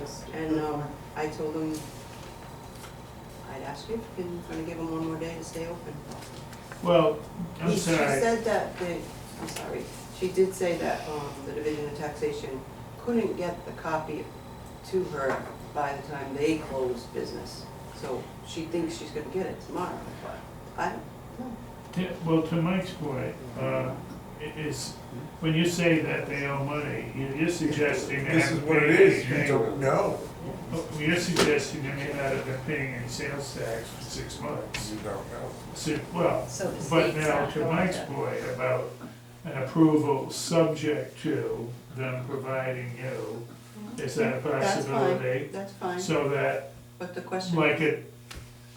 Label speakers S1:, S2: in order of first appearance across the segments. S1: just, and um, I told him, I'd ask you if you're gonna give him one more day to stay open.
S2: Well, I'm
S1: He- She
S2: sorry,
S1: said that, the- I'm sorry, she did say that um, the Division of Taxation couldn't get the copy to her by the time they closed business. So she thinks she's gonna get it tomorrow, but I don't know.
S2: T- well, to Mike's point, uh, i- is, when you say that they owe money, you- you're suggesting they
S3: This is
S2: haven't
S3: what
S2: paid
S3: it is, you
S2: anything.
S3: don't know,
S2: Oh, You're suggesting they may not have been paying any sales tax for six months.
S3: you don't know.
S2: So, well,
S4: So the
S2: but
S4: state's
S2: now
S4: not
S2: to
S4: going
S2: Mike's
S4: to-
S2: point about an approval subject to them providing you, is that a
S1: That's fine,
S2: possibility?
S1: that's fine,
S2: So that,
S1: but the question,
S2: like it,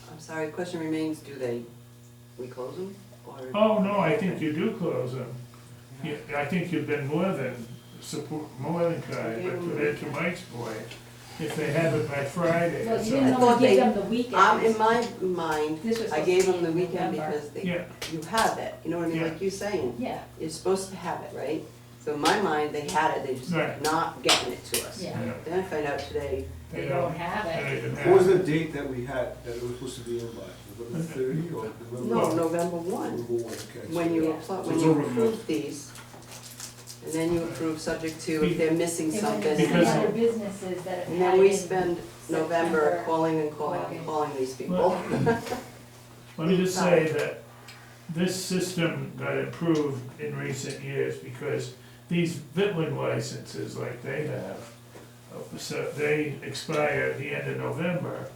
S1: I'm sorry, the question remains, do they, we close them or?
S2: Oh, no, I think you do close them. You- I think you've been more than support, more than kind, but to that, to Mike's point, if they have it by Friday or
S4: Well, you didn't
S2: something.
S4: want to
S1: they-
S4: give them the
S1: Um, in
S4: weekend.
S1: my mind,
S4: This was
S1: I
S4: supposed
S1: gave
S4: to be
S1: them the
S4: in
S1: weekend
S4: November.
S1: because they,
S2: Yeah,
S1: you have it, you know what I mean,
S2: Yeah.
S1: like you're saying.
S4: Yeah,
S1: you're supposed to have it, right? So in my mind, they had it, they just
S2: Right.
S1: not getting it to us.
S4: yeah,
S1: Then I find out today,
S4: they don't have
S2: they
S4: it.
S2: didn't have
S5: What was
S2: it.
S5: the date that we had, that it was supposed to be in by, November thirty or
S1: no,
S5: November?
S1: November one, when you apply, when
S5: It's
S1: you
S5: over a month.
S1: approve these, and then you approve subject to if they're missing
S4: It was
S1: something.
S4: any
S2: Because-
S4: other businesses that have
S1: And
S4: had
S1: then we
S4: it in
S1: spend November
S4: September.
S1: calling and calling and
S4: Calling.
S1: calling these people.
S2: Well- Let me just say that this system got improved in recent years because these Vitland licenses like they have, uh, so they expire at the end of November.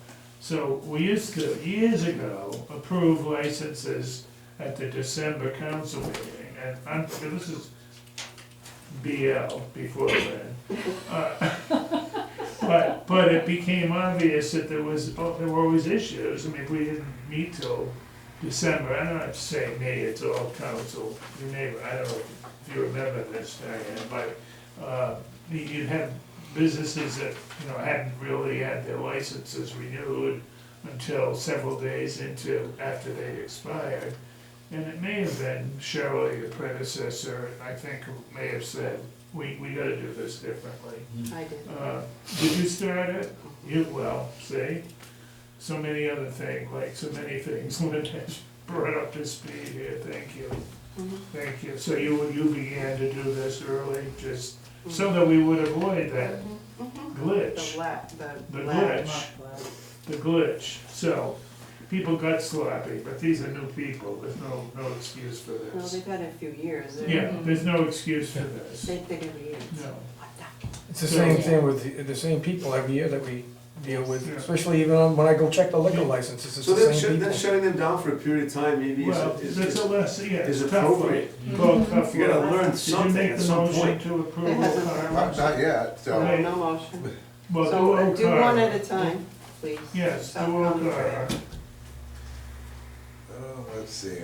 S2: So we used to, years ago, approve licenses at the December council meeting. And I'm, this is BL before then. Uh, But, but it became obvious that there was, oh, there were always issues. I mean, we didn't meet till December. I don't have to say me, it's all council, your neighbor, I don't know if you remember this, Diane, but, uh, you- you'd have businesses that, you know, hadn't really had their licenses renewed until several days into, after they expired. And it may have been Shirley, the predecessor, I think, who may have said, we, we gotta do this differently.
S1: I did.
S2: Uh, Did you start it? You, well, see, so many other things, like so many things, Lynn has brought up to speed here, thank you,
S1: Mhm.
S2: thank you. So you, you began to do this early, just so that we would avoid that
S1: Mhm. The
S2: glitch,
S1: la, the.
S2: The
S1: la-
S2: glitch. the glitch. So, people got sloppy, but these are new people, there's no, no excuse for
S1: Well,
S2: this.
S1: they've had it a few years, they're,
S2: Yeah, there's no excuse for this,
S1: they think every year.
S2: no.
S1: What the?
S6: It's the same thing with the- the same people every year that we deal with,
S2: Yeah.
S6: especially even on- when I go check the liquor licenses, it's
S5: So
S6: the
S5: then
S6: same
S5: shut, then
S6: people.
S5: shutting them down for a period of time maybe
S2: Well,
S5: is, is,
S2: that's
S5: is-
S2: a less, yeah, it's
S5: is
S2: a tough one.
S5: appropriate.
S2: Well, tough
S5: You gotta
S2: one.
S5: learn
S2: Did you
S5: something
S2: make
S5: at
S2: the
S5: some
S2: motion
S5: point.
S2: to
S1: It
S2: approve
S1: hasn't-
S3: Not,
S2: O'Connor?
S3: not yet, so,
S1: No, no motion.
S2: Well, do
S1: So uh, do one
S2: O'Connor.
S1: at a time, please.
S2: Yes, do
S1: Stop coming.
S2: O'Connor.
S3: uh, let's see.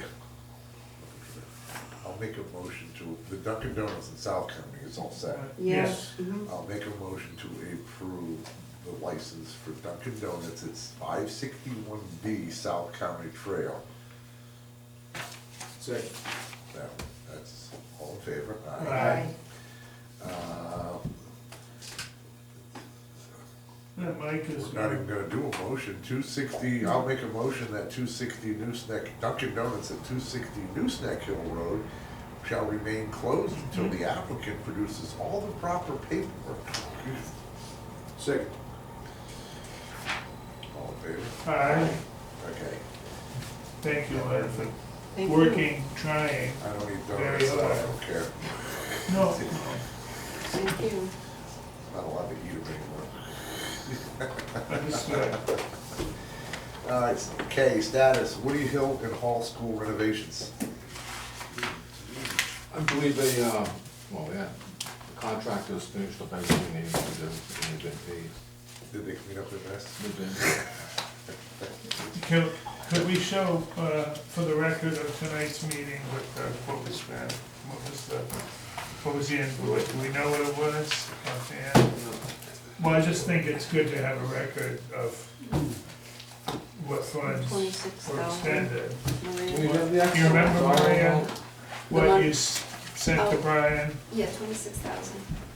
S3: I'll make a motion to, the Dunkin' Donuts in South County is all set.
S1: Yes. mhm.
S3: I'll make a motion to approve the license for Dunkin' Donuts, it's five sixty-one B South County Trail.
S5: Second.
S3: Now, that's all in favor?
S2: Aye.
S3: Uh,
S2: Yeah, Mike is,
S3: We're not even gonna do a motion, two sixty, I'll make a motion that two sixty Newsnack, Dunkin' Donuts at two sixty Newsnack Hill Road shall remain closed until the applicant produces all the proper paperwork.
S5: Second.
S3: All in favor?
S2: aye,
S3: Okay,
S2: thank you, Len, for
S1: Thank you.
S2: working, trying.
S3: I don't eat
S2: Very
S3: donuts, so I
S2: well.
S3: don't care,
S2: No,
S1: Thank you.
S3: I'm not allowed to eat them anymore.
S2: understood.
S3: Uh, it's K, status, Woody Hill and Hall School renovations.
S7: I believe they, uh, well, yeah, the contractors finished up everything they needed to do, and they've been paid.
S3: Did they clean up their mess?
S7: They've been-
S2: Could, could we show, uh, for the record of tonight's meeting, what, uh, what was that, what was the, what was the invoice, do we know what it was? offhand? Well, I just think it's good to have a record of what funds
S1: Twenty-six
S2: were
S1: thousand.
S2: expended.
S5: Do you have the
S2: You
S5: actual?
S2: remember,
S5: Sorry.
S2: Maria,
S1: The
S2: what
S1: mon-
S2: you s- sent to Brian?
S8: Yeah, twenty-six thousand.